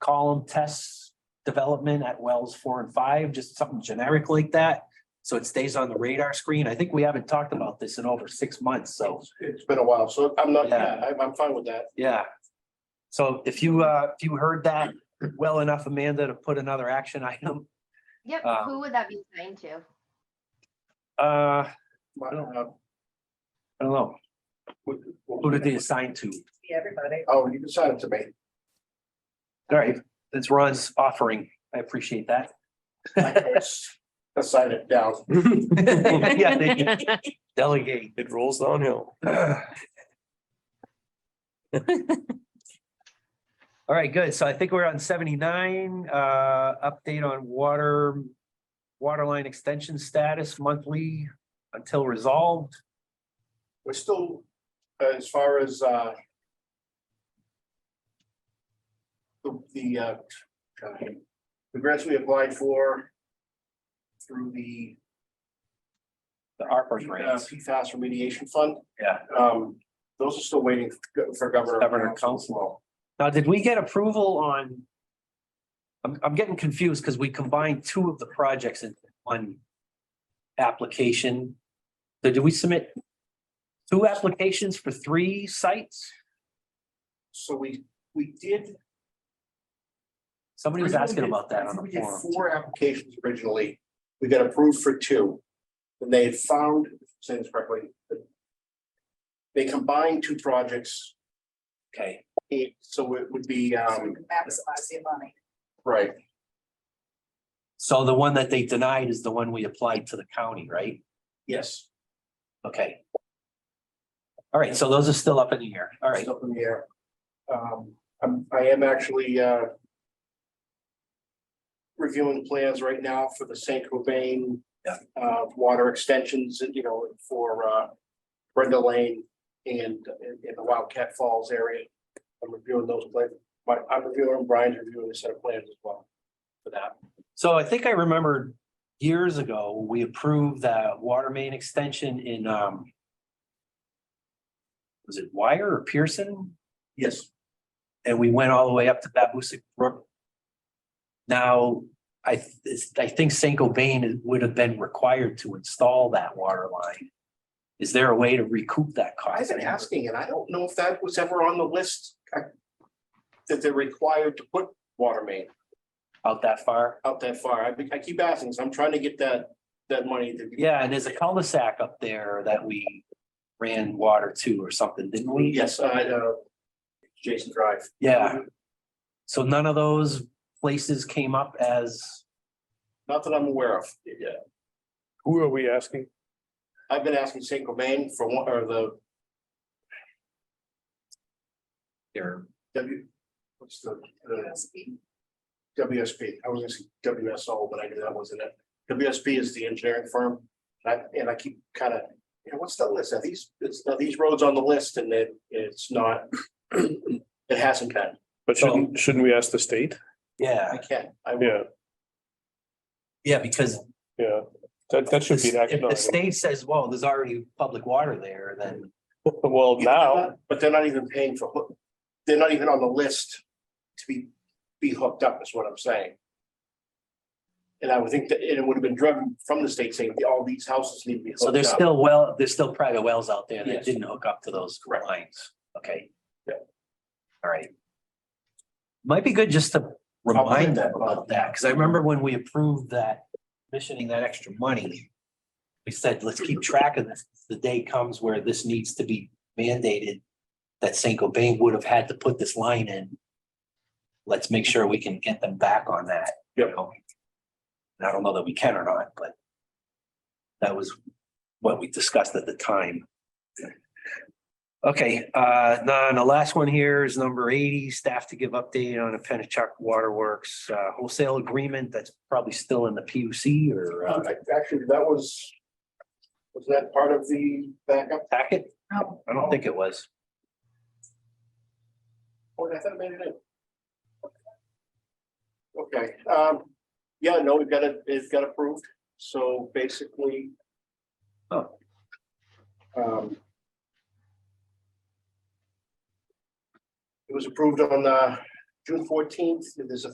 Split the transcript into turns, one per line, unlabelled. call them tests development at wells four and five, just something generic like that. So it stays on the radar screen. I think we haven't talked about this in over six months, so,
It's been a while, so I'm not,
Yeah.
yeah, I'm, I'm fine with that.
yeah. So if you, uh, if you heard that well enough, Amanda, to put another action item,
Yep,
Um,
who would that be assigned to?
uh,
I don't know.
I don't know, who did they assign to?
Everybody.
uh, Oh, you can sign it to me.
All right, that's Ron's offering. I appreciate that.
I can always Assign it down.
Yeah, they Delegate.
It rolls downhill.
All right, good. So I think we're on seventy-nine, uh, update on water, water line extension status monthly until resolved.
We're still, uh, as far as, uh, the, the, uh, God, the grants we applied for through the
The ARPA
uh,
grants,
PFAS remediation fund.
Yeah.
Um, those are still waiting for- for governor.
Governor Council. Now, did we get approval on? I'm, I'm getting confused because we combined two of the projects in one application. So did we submit two applications for three sites?
So we, we did.
Somebody was asking about that on
We
the
did
forum.
Four applications originally. We got approved for two. And they had found, saying this correctly, that they combined two projects.
Okay,
eh, So it would be,
So we
um,
can Maximize the money.
right,
so the one that they denied is the one we applied to the county, right?
yes.
Okay. All right, so those are still up in the air. All right,
It's Up in the air. Um, I'm, I am actually, uh, reviewing plans right now for the Saint Cobain.
Yeah.
Uh, water extensions, you know, for, uh, Brenda Lane and, in the Wildcat Falls area. I'm reviewing those plans, my, I'm reviewing, them, Brian's reviewing a set of plans as well for that.
so I think I remembered years ago, we approved that water main extension in, um, was it Wire or Pearson?
Yes.
And we went all the way up to Babusick Brook. Now, I, th- it's- I think Saint Cobain would have been required to install that water line. Is there a way to recoup that cost?
I've been asking, and I don't know if that was ever on the list. uh, That they're required to put water main.
out that far.
out that far. I, be- I keep asking, so I'm trying to get that, that money to.
Yeah, and there's a cul-de-sac up there that we ran water to or something, didn't we?
Yes, I, uh, Jason Drive.
Yeah, so none of those places came up as,
Not that I'm aware of. Yeah,
Who are we asking?
I've been asking Saint Cobain for one, or the
they're
W, what's the, the
USP.
WSP? I was gonna say WSO, but I knew that wasn't it. WSP is the engineering firm. And I, and I keep kind of, you know, what's the list? Are these, it's, are these roads on the list and it, it's not, it hasn't been.
But shouldn't, shouldn't we ask the state?
yeah,
I can, I will.
Yeah,
yeah, because
yeah. That, that should be an
if
action.
the
item.
state says, well, there's already public water there, then,
Well, now,
But they're not even paying for, hook- they're not even on the list to be, be hooked up is what I'm saying. And I would think that it would have been driven from the state saying all these houses need to be
so
hooked
there's
up.
still well, there's still private wells out there that
Yes.
didn't hook up to those
Correct.
lines, okay?
Yeah.
All right. Might be good just to remind them
that
about
about-
that, because I remember when we approved that, commissioning that extra money. We said, let's keep track of this, the day comes where this needs to be mandated. That Saint Cobain would have had to put this line in. Let's make sure we can get them back on that. you know? And I don't know that we can or not, but. That was what we discussed at the time. Okay, uh, now, and the last one here is number eighty, staff to give update on a Pennachuck Waterworks uh, wholesale agreement that's probably still in the P U C or uh,
Um, I- Actually, that was, was that part of the backup?
packet?
No.
I don't think it was.
Oh, I thought I made it in. Okay, um, yeah, no, we've got it, it's got approved, so basically.
Oh.
Um. It was approved on, uh, June fourteenth, there's a